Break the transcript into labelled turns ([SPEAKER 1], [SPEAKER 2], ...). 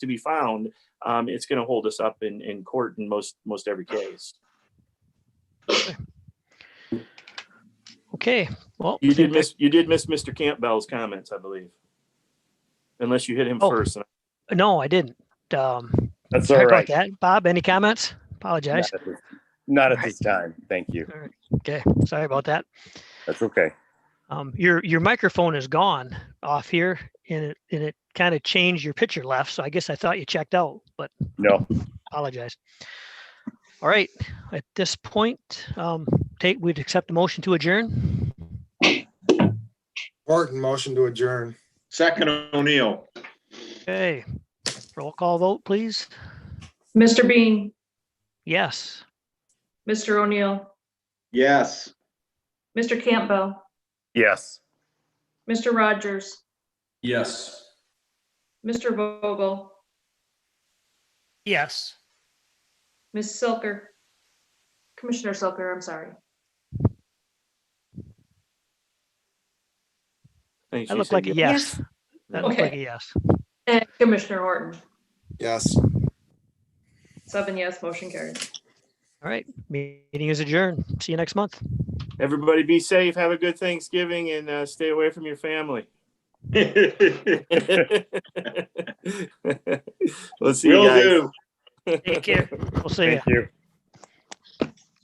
[SPEAKER 1] to be found, um, it's going to hold us up in, in court in most, most every case.
[SPEAKER 2] Okay, well.
[SPEAKER 1] You did
[SPEAKER 2] seems
[SPEAKER 1] miss, you did miss Mr. Campbell's comments, I believe. Unless you hit him
[SPEAKER 2] Oh.
[SPEAKER 1] first. and-
[SPEAKER 2] like- No, I didn't. Um,
[SPEAKER 3] That's
[SPEAKER 2] sorry
[SPEAKER 3] all
[SPEAKER 2] about
[SPEAKER 3] right.
[SPEAKER 2] that. Bob, any comments? Apologize.
[SPEAKER 3] Not at this- Not at
[SPEAKER 2] All
[SPEAKER 3] this time. Thank you.
[SPEAKER 2] Okay, sorry about that.
[SPEAKER 3] That's okay.
[SPEAKER 2] Um, your, your microphone is gone off here and it, and it kind of changed your picture left. So I guess I thought you checked out, but
[SPEAKER 3] No,
[SPEAKER 2] apologize. All right, at this point, um, take, we'd accept a motion to adjourn.
[SPEAKER 4] Barton, motion to adjourn.
[SPEAKER 5] Second O'Neill.
[SPEAKER 2] Okay, roll call vote, please.
[SPEAKER 6] Mr. Bean,
[SPEAKER 2] Yes,
[SPEAKER 6] Mr. O'Neill,
[SPEAKER 5] Yes.
[SPEAKER 6] Mr. Campbell,
[SPEAKER 3] yes.
[SPEAKER 6] Mr. Rogers,
[SPEAKER 5] Yes.
[SPEAKER 6] Mr. Vogel,
[SPEAKER 7] Yes.
[SPEAKER 6] Ms. Silker. Commissioner Silker, I'm sorry.
[SPEAKER 1] Thanks,
[SPEAKER 2] that
[SPEAKER 1] you
[SPEAKER 2] looked
[SPEAKER 1] said
[SPEAKER 2] like
[SPEAKER 1] yes.
[SPEAKER 2] a yes. That looked like a
[SPEAKER 6] Okay.
[SPEAKER 2] yes.
[SPEAKER 6] And Commissioner Horton,
[SPEAKER 4] Yes.
[SPEAKER 6] seven yes, motion carried.
[SPEAKER 2] All right, meeting is adjourned. See you next month.
[SPEAKER 1] Everybody be safe. Have a good Thanksgiving and uh, stay away from your family. Let's see you
[SPEAKER 5] Will
[SPEAKER 1] guys.
[SPEAKER 5] do.
[SPEAKER 2] Take care. We'll see you.
[SPEAKER 3] Thank you.